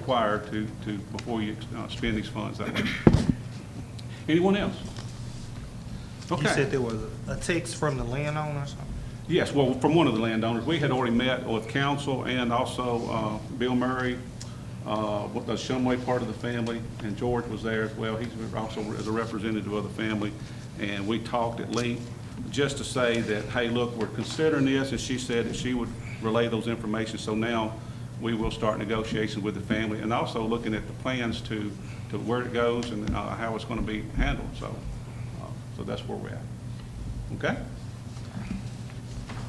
required to, to, before you uh, spend these funds that way. Anyone else? You said Okay. there was a text from the landowner or something? Yes, well, from one of the landowners, we had already met with council and also uh, Bill Murray, uh, with the Shumway part of the family, and George was there as well. He's also as a representative of the family. And we talked at length, just to say that, hey, look, we're considering this, and she said that she would relay those information. So now, we will start negotiations with the family, and also looking at the plans to, to where it goes and uh, how it's going to be handled. So, uh, so that's where we're at. Okay?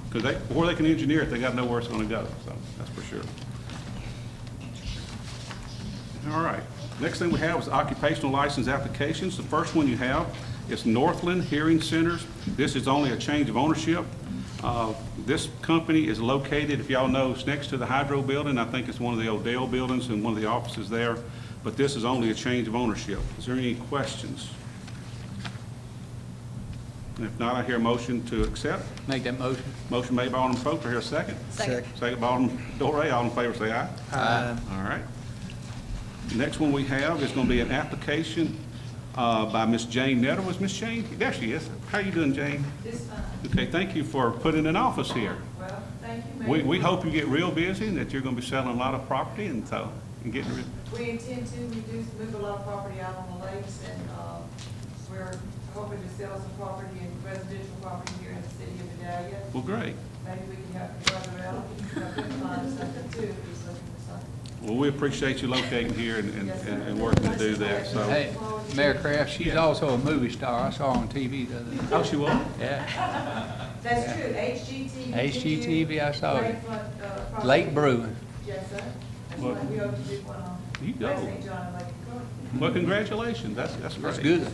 Because they, or they can engineer it, they got to know where it's going to go, so that's for sure. All right, next thing we have is occupational license applications. The first one you have is Northland Hearing Centers. This is only a change of ownership. Uh, This company is located, if y'all know, it's next to the Hydro Building. I think it's one of the Odell buildings and one of the offices there, but this is only a change of ownership. Is there any questions? If not, I hear a motion to accept. Make that motion. Motion made by Alderman Pope, do I hear a second? Second. Second by Alderman Dorey, all in favor say aye. Aye. All right. Next one we have is going to be an application uh, by Miss Jane Netter. Was Miss Jane? There she is. How you doing, Jane? It's fine. Okay, thank you for putting an office here. Well, thank you, We, Mayor. we hope you get real busy and that you're going to be selling a lot of property and so, and getting, rid- We intend to reduce, move a lot of property out on the lakes, and uh, we're hoping to sell some property and residential property here in the city of Vidalia. well, great. Maybe we can help your brother out, he's looking to find something too, if he's looking for something. Well, we appreciate you locating here and, and- Yes, sir. and and working to do that, so. Hey, Mayor Kraft, she's Yeah. also a movie star. I saw her on TV the other day. Oh, she will? Yeah, That's true, HGTV. HGTV, I saw it. Lakefront, uh, property. Lake Brewing. Yes, sir. That's Well- what we hope to do one on. You go. Lake St. John and Lake Cook. Well, congratulations. That's, that's great. That's good.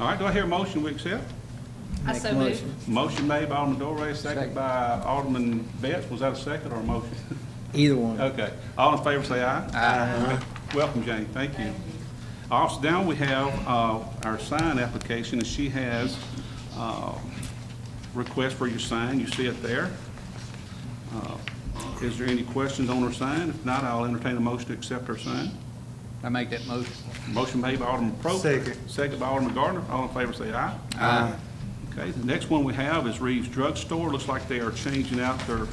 All right, do I hear a motion we accept? I so move. Motion made by Alderman Dorey, second Second. by Alderman Betts. Was that a second or a motion? Either one. Okay. All in favor, say aye. Aye. Welcome, Jane. Thank you. Also, down we have uh, our sign application, and she has uh, request for your sign. You see it there. Uh, Is there any questions on her sign? If not, I'll entertain a motion to accept her sign. I make that motion. Motion made by Alderman Probst. Second. by Alderman Gardner. All in favor, say aye. Aye. Okay, the next one we have is Reeves Drug Store. Looks like they are changing out their,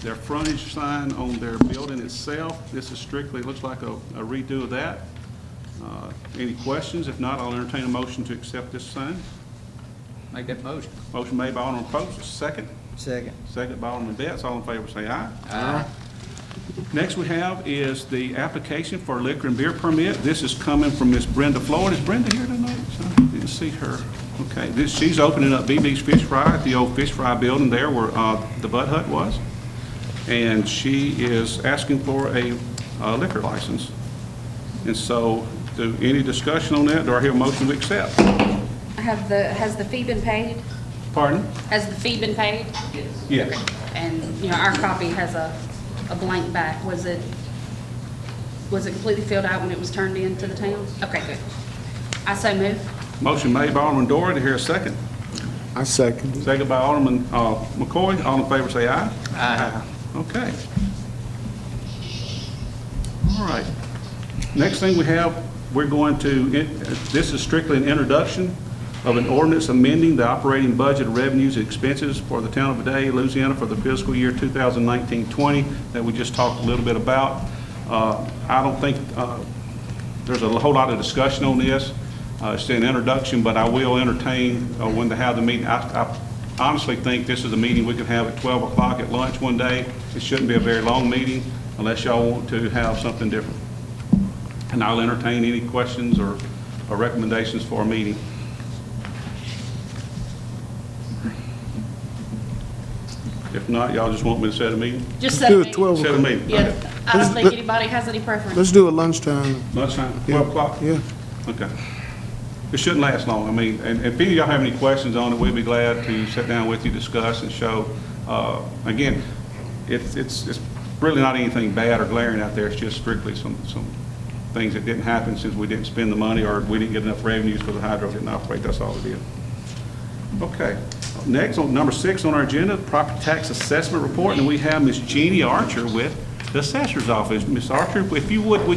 their frontage sign on their building itself. This is strictly, looks like a a redo of that. Uh, Any questions? If not, I'll entertain a motion to accept this sign. Make that motion. Motion made by Alderman Probst, second. Second. Second by Alderman Betts. All in favor, say aye. Next we have is the application for liquor and beer permit. This is coming from Miss Brenda Floyd. Is Brenda here tonight? I Didn't see her. Okay, this, she's opening up BB's Fish Fry at the old Fish Fry building there where uh, the Bud Hut was. And she is asking for a uh, liquor license. And so, do, any discussion on that? Do I hear a motion to accept? Have the, has the fee been paid? Pardon? Has the fee been paid? Yes. And, you know, our copy has a, a blank back. Was it, was it completely filled out when it was turned in to the town? Okay, good. I so move. Motion made by Alderman Dory. to hear a second? I second it. Second by Alderman uh, McCoy. All in favor, say aye. Aye. Okay. All right. Next thing we have, we're going to, it- this is strictly an introduction of an ordinance amending the operating budget revenues and expenses for the town of Vidalia, Louisiana for the fiscal year 2019-20 that we just talked a little bit about. Uh, I don't think uh, there's a whole lot of discussion on this. Uh, It's an introduction, but I will entertain uh, when to have the meeting. I I honestly think this is a meeting we could have at 12 o'clock at lunch one day. It shouldn't be a very long meeting unless y'all want to have something different. And I'll entertain any questions or or recommendations for a meeting. If not, y'all just want me to set a meeting? Just Do so. it 12 Set a o'clock. meeting. Yeah, Okay. I don't think Let's- anybody has any preference. Let's do it lunchtime. Lunchtime, Yeah. 12 o'clock? Yeah. Okay. It shouldn't last long. I mean, and if any of y'all have any questions on it, we'd be glad to sit down with you, discuss and show. Uh, Again, it's, it's, it's really not anything bad or glaring out there. It's just strictly some, some things that didn't happen since we didn't spend the money or we didn't get enough revenues because the hydro didn't operate. That's all it is. Okay. Next, on number six on our agenda, property tax assessment report, and we have Ms. Jeannie Archer with the Assessor's Office. Ms. Archer, if you would, would you